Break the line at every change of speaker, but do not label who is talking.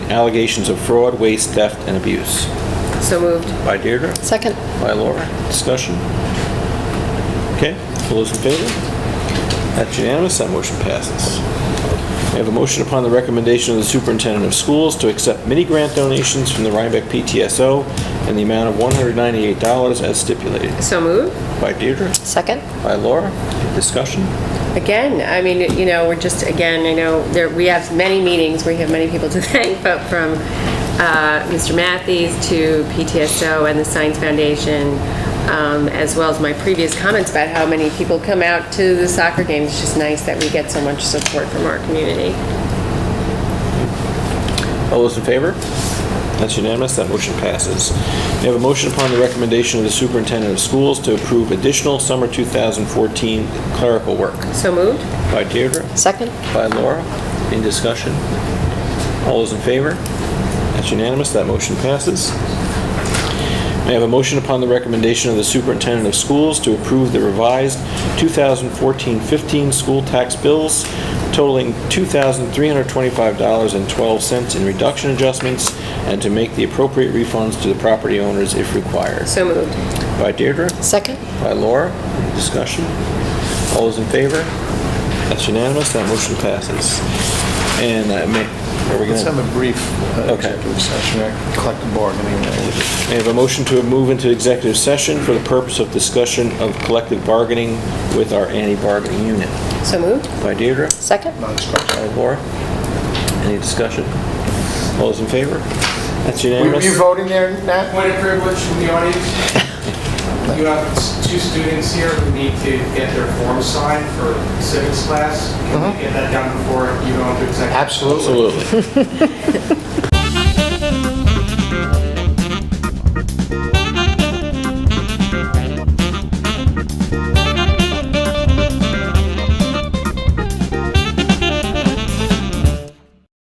allegations of fraud, waste, theft, and abuse.
So moved.
By Deirdre?
Second.
By Laura? Discussion? Okay, all those in favor? That's unanimous, that motion passes. We have a motion upon the recommendation of the superintendent of schools to accept mini-grant donations from the Rhinebeck PTSO in the amount of $198 as stipulated.
So moved.
By Deirdre?
Second.
By Laura? Discussion?
Again, I mean, you know, we're just, again, I know there, we have many meetings, we have many people to thank, but from uh, Mr. Matthews to PTSO and the Science Foundation, um, as well as my previous comments about how many people come out to the soccer games. It's just nice that we get so much support from our community.
All those in favor? That's unanimous, that motion passes. We have a motion upon the recommendation of the superintendent of schools to approve additional summer 2014 clerical work.
So moved.
By Deirdre?
Second.
By Laura? In discussion? All those in favor? That's unanimous, that motion passes. May I have a motion upon the recommendation of the superintendent of schools to approve the revised 2014-15 school tax bills totaling $2,325.12 in reduction adjustments and to make the appropriate refunds to the property owners if required.
So moved.
By Deirdre?
Second.
By Laura. Any Discussion? All those in favor? That's unanimous. That motion passes. And uh, may, are we
Let's have
gonna-
a brief uh,
Okay.
executive session, uh, collective bargaining. uh,
may I have a motion to move into executive session for the purpose of discussion of collective bargaining with our anti-bargaining unit.
So moved.
By Deirdre?
Second.
non-discretionary.
By Laura? Any discussion? All those in favor? That's
Were
unanimous.
you voting there, Nat?
Point of privilege from the audience. You have s- two students here who need to get their forms signed for civics class. Can we get that done before you go into executive?
Absolutely.
Absolutely.